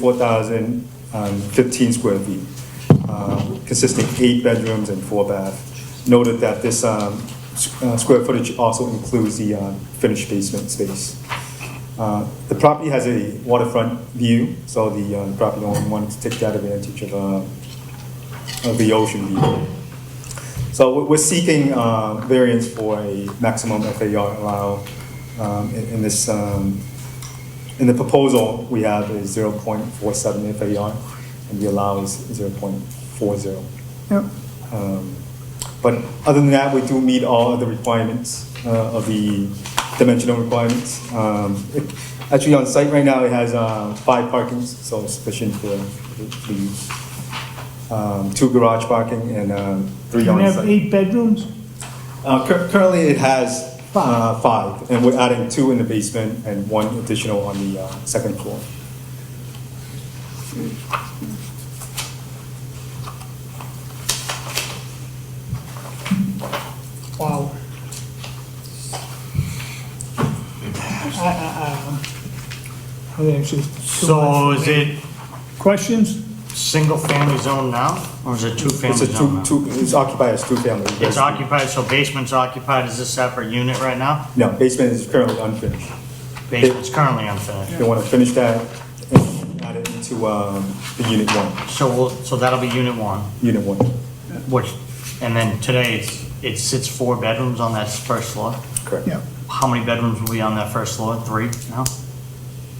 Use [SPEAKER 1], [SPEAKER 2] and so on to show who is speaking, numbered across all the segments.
[SPEAKER 1] 4,015 um, square feet, uh, consisting eight bedrooms and four baths. Noted that this um, s- uh, square footage also includes the um, finished basement space. Uh, The property has a waterfront view, so the um, property owner wanted to take that advantage of uh, of the ocean view. So we- we're seeking uh, variance for a maximum FAR allow um, in in this um, in the proposal we have is zero point four seven FAR, and the allow is zero point four zero.
[SPEAKER 2] Yep.
[SPEAKER 1] Um, But other than that, we do meet all of the requirements uh, of the dimensional requirements. Um, it- Actually, on site right now, it has uh, five parkings, so it's sufficient for the- the use. Um, Two garage parking and um, three
[SPEAKER 2] You
[SPEAKER 1] on
[SPEAKER 2] have
[SPEAKER 1] site.
[SPEAKER 2] eight bedrooms?
[SPEAKER 1] Uh, cur- Currently, it has uh, five, and we're adding two in the basement and one additional on the uh, second floor.
[SPEAKER 2] Wow. I, I, I don't know. I think it's just too
[SPEAKER 3] So
[SPEAKER 2] much.
[SPEAKER 3] is it
[SPEAKER 2] Questions?
[SPEAKER 3] single-family zone now, or is it
[SPEAKER 1] It's
[SPEAKER 3] two-family
[SPEAKER 1] a two,
[SPEAKER 3] zone now?
[SPEAKER 1] two, it's occupied as two family.
[SPEAKER 3] It's occupied, so basement's occupied as a separate unit right now?
[SPEAKER 1] No, basement is currently unfinished.
[SPEAKER 3] Basement's currently unfinished.
[SPEAKER 1] They want to finish that and add it into, um, the unit one,
[SPEAKER 3] So we'll, so that'll be unit one,
[SPEAKER 1] unit one,
[SPEAKER 3] which, and then today, it's, it sits four bedrooms on that first floor.
[SPEAKER 1] correct.
[SPEAKER 2] Yeah.
[SPEAKER 3] How many bedrooms will be on that first floor? Three now?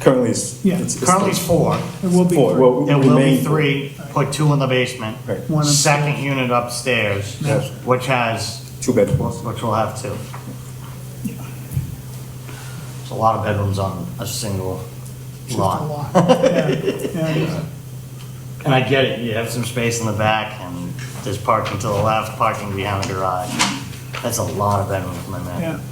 [SPEAKER 1] Currently it's.
[SPEAKER 2] Yeah,
[SPEAKER 1] it's- it's-
[SPEAKER 3] Currently it's four.
[SPEAKER 2] It will be.
[SPEAKER 1] Four, well,
[SPEAKER 3] There will be
[SPEAKER 1] remain-
[SPEAKER 3] three, put two in the basement.
[SPEAKER 1] Right.
[SPEAKER 2] One upstairs.
[SPEAKER 3] Second unit upstairs,
[SPEAKER 1] Yes.
[SPEAKER 3] which has
[SPEAKER 1] Two bedrooms.
[SPEAKER 3] which will have two. It's a lot of bedrooms on a single
[SPEAKER 2] Just a
[SPEAKER 3] lot.
[SPEAKER 2] lot. Yeah, yeah.
[SPEAKER 3] And I get it, you have some space in the back and there's parking to the left, parking behind the garage. That's a lot of bedrooms, my
[SPEAKER 2] Yeah.
[SPEAKER 3] man.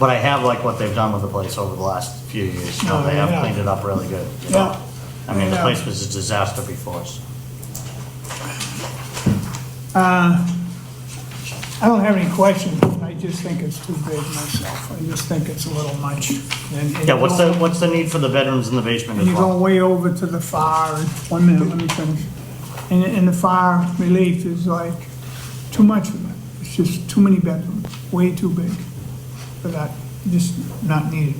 [SPEAKER 3] But I have like what they've done with the place over the last few years, you know,
[SPEAKER 2] Oh,
[SPEAKER 3] they have
[SPEAKER 2] yeah.
[SPEAKER 3] cleaned it up really good. you know?
[SPEAKER 2] Yeah.
[SPEAKER 3] I mean, the
[SPEAKER 2] Yeah.
[SPEAKER 3] place was a disaster before, so.
[SPEAKER 2] I don't have any questions. I just think it's too big myself. I just think it's a little much. And- and
[SPEAKER 3] Yeah,
[SPEAKER 2] you
[SPEAKER 3] what's the,
[SPEAKER 2] don't-
[SPEAKER 3] what's the need for the bedrooms in the basement as
[SPEAKER 2] And you're going
[SPEAKER 3] well?
[SPEAKER 2] way over to the fire, and- one minute, let me finish. And, and the fire relief is like, too much of it, it's just too many bedrooms, way too big for that, just not needed.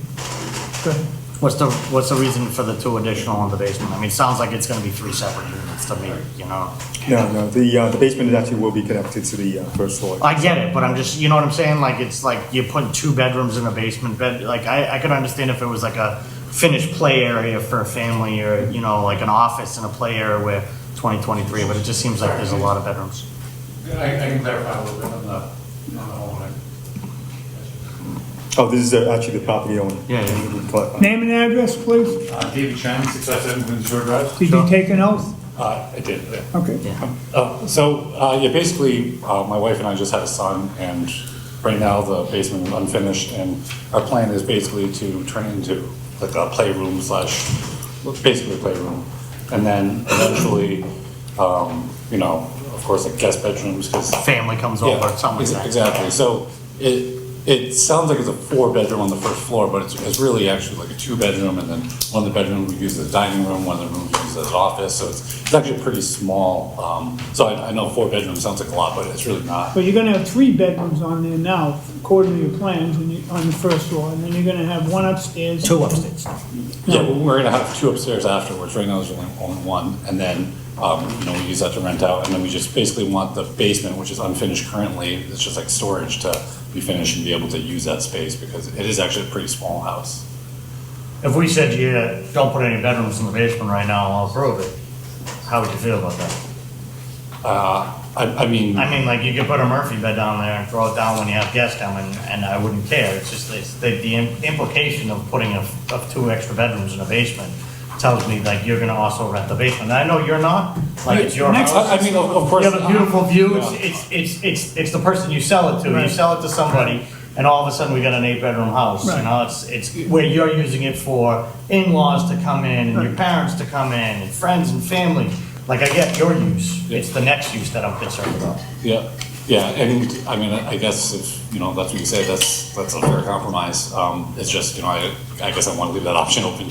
[SPEAKER 2] Go ahead.
[SPEAKER 3] What's the, what's the reason for the two additional in the basement? I mean, it sounds like it's gonna be three separate units to me, you know?
[SPEAKER 1] No, no, the, uh, the basement actually will be connected to the, uh, first floor.
[SPEAKER 3] I get it, but I'm just, you know what I'm saying? Like, it's like you're putting two bedrooms in a basement bed. Like, I, I could understand if it was like a finished play area for a family or, you know, like an office and a play area where 2023, but it just seems like there's a lot of bedrooms.
[SPEAKER 4] I, I can clarify a little bit on the, on the whole one.
[SPEAKER 1] Oh, this is uh, actually the property owner. uh,
[SPEAKER 3] Yeah, yeah.
[SPEAKER 1] We collect-
[SPEAKER 2] Name and address, please.
[SPEAKER 4] Uh, David Chang, six five seven Queens Shore Drive.
[SPEAKER 2] Did you take an oath?
[SPEAKER 4] Uh, I did, yeah.
[SPEAKER 2] Okay.
[SPEAKER 4] Uh, so, uh, yeah, basically, uh, my wife and I just had a son, and right now the basement is unfinished, and our plan is basically to turn it into like a playroom slash, basically a playroom. And then eventually, um, you know, of course, like guest bedrooms, because
[SPEAKER 3] Family comes
[SPEAKER 4] Yeah,
[SPEAKER 3] over, someone's
[SPEAKER 4] ex-
[SPEAKER 3] like,
[SPEAKER 4] Exactly, so it, it sounds like it's a four-bedroom on the first floor, but it's, it's really actually like a two-bedroom, and then one of the bedrooms we use as a dining room, one of the rooms we use as an office, so it's, it's actually pretty small. Um, so I, I know four bedrooms sounds like a lot, but it's really not.
[SPEAKER 2] But you're gonna have three bedrooms on there now, according to your plans, and you, on the first floor, and then you're gonna have one upstairs.
[SPEAKER 3] two upstairs.
[SPEAKER 4] Yeah, we- we're gonna have two upstairs afterwards, right now there's only, only one, and then, um, you know, we use that to rent out, and then we just basically want the basement, which is unfinished currently, it's just like storage to be finished and be able to use that space, because it is actually a pretty small house.
[SPEAKER 3] If we said, yeah, don't put any bedrooms in the basement right now, I'll approve it, how would you feel about that?
[SPEAKER 4] Uh, I, I mean.
[SPEAKER 3] I mean, like, you could put a Murphy bed down there and throw it down when you have guests come, and, and I wouldn't care. It's just, it's, the, the im- implication of putting of, of two extra bedrooms in a basement tells me, like, you're gonna also rent the basement. And I know you're not, like, it's your house.
[SPEAKER 4] I I mean, of of course.
[SPEAKER 3] You have a beautiful view, it's,
[SPEAKER 4] Yeah.
[SPEAKER 3] it's, it's, it's, it's the person you sell it to, you
[SPEAKER 2] Right.
[SPEAKER 3] sell it to somebody, and all of a sudden we got an eight-bedroom house, you
[SPEAKER 2] Right.
[SPEAKER 3] know, it's, it's where you're using it for in-laws to come in, and your
[SPEAKER 2] Right.
[SPEAKER 3] parents to come in, and friends and family. Like, I get your use,
[SPEAKER 4] Yeah.
[SPEAKER 3] it's the next use that I'm concerned about.
[SPEAKER 4] uh, Yeah, yeah, and I mean, I guess if, you know, that's what you say, that's, that's a fair compromise. Um, it's just, you know, I, I guess I want to leave that option open